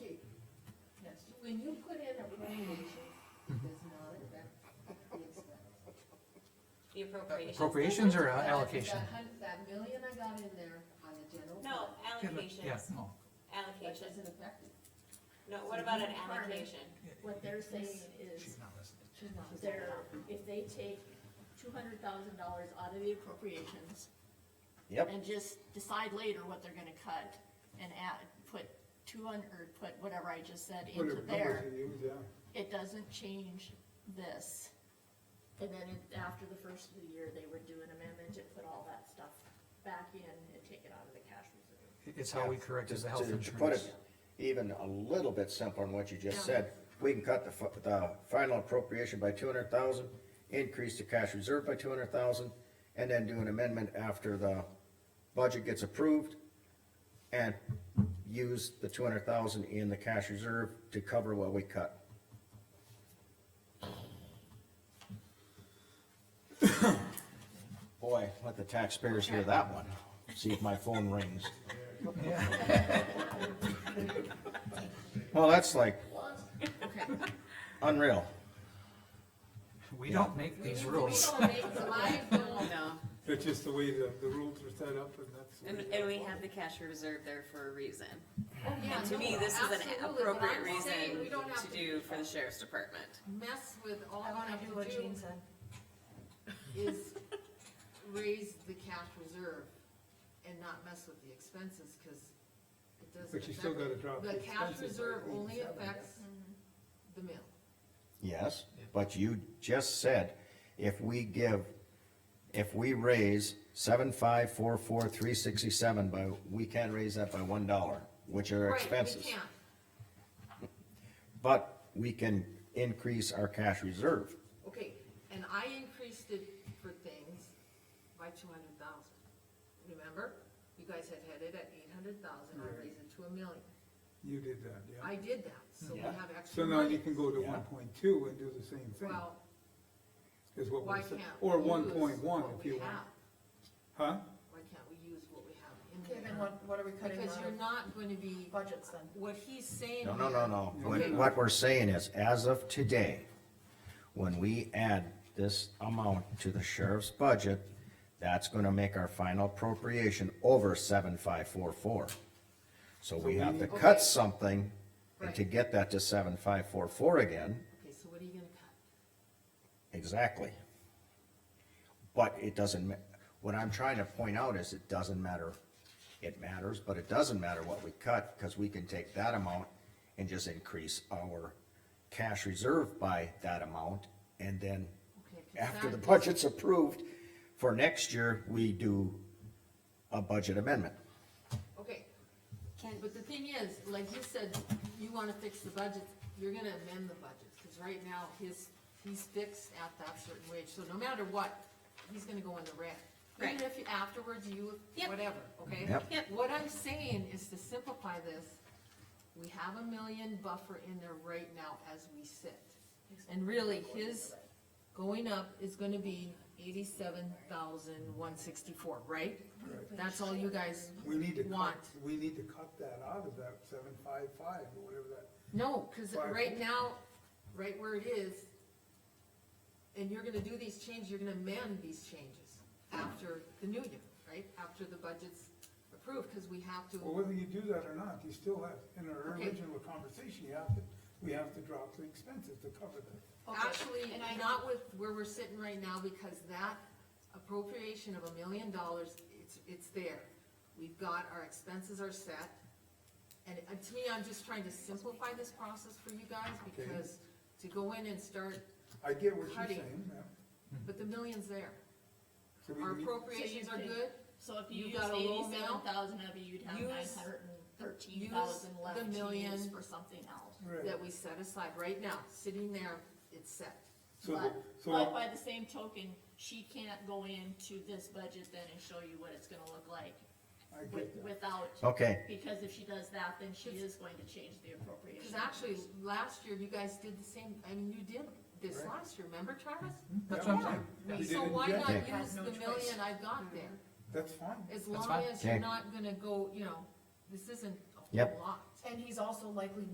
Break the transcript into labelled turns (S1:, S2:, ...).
S1: when you put in a appropriation, it does not affect the expense.
S2: Uh,
S3: The appropriations.
S2: Appropriations or
S1: That-
S2: uh, allocation?
S1: That hun, that million I got in there on the general.
S3: No,
S1: fund,
S2: Yeah,
S3: allocations,
S2: no,
S1: That
S3: allocations.
S1: doesn't affect it.
S3: No, what about an allocation?
S4: What they're saying is,
S2: she's not listening.
S1: She's not-
S4: they're, if they take two hundred thousand dollars out of the appropriations.
S5: Yep.
S4: And just decide later what they're gonna cut and add, put two hundred, or put whatever I just said into
S6: Whatever
S4: there,
S6: numbers you use, yeah.
S4: it doesn't change this. And then it- after the first of the year, they would do an amendment and put all that stuff back in and take it out of the cash reserve.
S2: It's how we corrected
S5: To-
S2: the health
S5: to- to put
S2: insurance.
S5: it Even a little bit simpler than what you just
S4: Yeah.
S5: said, we can cut the, fi- the final appropriation by two hundred thousand, increase the cash reserve by two hundred thousand, and then do an amendment after the budget gets approved, and use the two hundred thousand in the cash reserve to cover what we cut. Boy, let the taxpayers hear that one, see if my phone rings.
S2: Yeah,
S5: Well, that's like
S1: Okay.
S5: unreal.
S2: we don't make these rules.
S1: We don't make the life go.
S3: No,
S6: That's just the way the, the rules are set up and that's. the way
S3: and,
S6: they
S3: and we
S6: are.
S3: have the cash reserve there for a reason.
S1: Oh, yeah,
S3: To me,
S1: no,
S3: this is an
S1: absolutely, but I'm
S3: appropriate
S1: saying
S3: reason
S1: we don't have
S3: to do for the sheriff's department.
S1: Mess with all
S7: I
S1: I
S7: wanna
S1: have
S7: do what
S1: to do
S7: Jean said.
S1: is raise the cash reserve and not mess with the expenses, cause it doesn't.
S6: But you still
S1: affect-
S6: gotta drop
S1: The
S6: the
S1: cash
S6: expenses by
S1: reserve only
S6: 87, yeah.
S1: affects
S7: Mm-hmm.
S1: the mill.
S5: Yes, but you just said if we give, if we raise seven five four four three sixty-seven by, we can't raise that by one dollar, which are
S1: Right,
S5: expenses.
S1: we can't.
S5: But we can increase our cash reserve.
S1: Okay, and I increased it for things by two hundred thousand. Remember? You guys had had it at eight hundred thousand, I raised it to a million.
S6: You did that, yeah.
S1: I did that, so we
S5: Yeah.
S1: have extra
S6: So now
S1: money.
S6: you can go to
S5: Yeah.
S6: one point two and do the same thing,
S1: Well,
S6: is what
S1: why
S6: we're saying,
S1: can't?
S6: or
S1: we
S6: one
S1: use
S6: point one
S1: what
S6: if
S1: we
S6: you want.
S1: have?
S6: Huh?
S1: Why can't we use what we have
S7: Okay,
S1: in
S7: then
S1: there?
S7: what, what are we cutting
S1: Because
S7: out
S1: you're
S7: of
S1: not gonna be,
S7: budgets then?
S1: what he's saying.
S5: No, no, no,
S1: here-
S5: no.
S1: Okay.
S5: What, what we're saying is, as of today, when we add this amount to the sheriff's budget, that's gonna make our final appropriation over seven five four four. So we have to
S1: Okay.
S5: cut something and to
S1: Right.
S5: get that to seven five four four again,
S1: Okay, so what are you gonna cut?
S5: exactly. But it doesn't, ma- what I'm trying to point out is it doesn't matter, it matters, but it doesn't matter what we cut, cause we can take that amount and just increase our cash reserve by that amount, and then
S1: Okay, 'cause
S5: after the
S1: that-
S5: budget's approved, for next year, we do a budget amendment.
S1: Okay, but the thing is, like you said, you wanna fix the budget, you're gonna amend the budget, cause right now, his, he's fixed at that certain wage, so no matter what, he's gonna go in the red.
S3: Right.
S1: Even if you- afterwards you,
S3: Yep.
S1: whatever, okay?
S5: Yep.
S3: Yep.
S1: What I'm saying is to simplify this, we have a million buffer in there right now as we sit. And really, his going up is gonna be eighty-seven thousand one sixty-four, right? That's all you guys
S6: We need to cut,
S1: want.
S6: we need to cut that out of that seven five five or whatever that,
S1: No, cause
S6: Why?
S1: right now, right where it is, and you're gonna do these changes, you're gonna amend these changes after the new year, right? After the budget's approved, cause we have
S6: well,
S1: to,
S6: whether you do that or not, you still have, in our
S1: Okay.
S6: original conversation, you have to, we have to drop the expenses to cover that.
S7: Okay,
S1: actually,
S7: and I-
S1: not with where we're sitting right now, because that appropriation of a million dollars, it's, it's there. We've got, our expenses are set, and uh, to me, I'm just trying to simplify this process for you guys,
S6: Okay.
S1: because to go in and start,
S6: I get what you're
S1: Cutting.
S6: saying, yeah.
S1: but the million's there.
S6: So we
S1: Our
S6: need-
S1: appropriations
S4: So
S1: are
S4: you think-
S1: good,
S4: So if you
S1: You
S4: use
S1: got a low amount?
S4: eighty-seven thousand of it, you'd have
S1: Use-
S4: nine hundred and thirteen thousand
S1: use
S4: left
S1: the
S4: to
S1: million.
S4: use for something else.
S6: Right.
S1: that we set aside right now, sitting there, it's set.
S6: So,
S4: But,
S6: the- so,
S4: but
S6: our-
S4: by the same token, she can't go into this budget then and show you what it's gonna look like
S6: I
S4: with,
S6: get that,
S4: without.
S5: Okay.
S4: Because if she does that, then she is going to change the
S1: Cause
S4: appropriation.
S1: actually, last year, you guys did the same, I mean, you did this
S6: Right.
S1: last year, remember Travis?
S2: Mm-hmm. That's what I'm saying.
S6: Yeah.
S1: We-
S6: We
S1: So
S6: didn't
S1: why
S6: get
S1: not
S5: it.
S1: use the
S7: Had no Mm-hmm.
S1: million I've got there,
S6: that's fine.
S1: as
S2: That's
S1: long
S2: fine.
S1: as you're
S5: Okay.
S1: not gonna go, you know, this isn't a
S5: Yep.
S1: whole lot.
S7: And he's also likely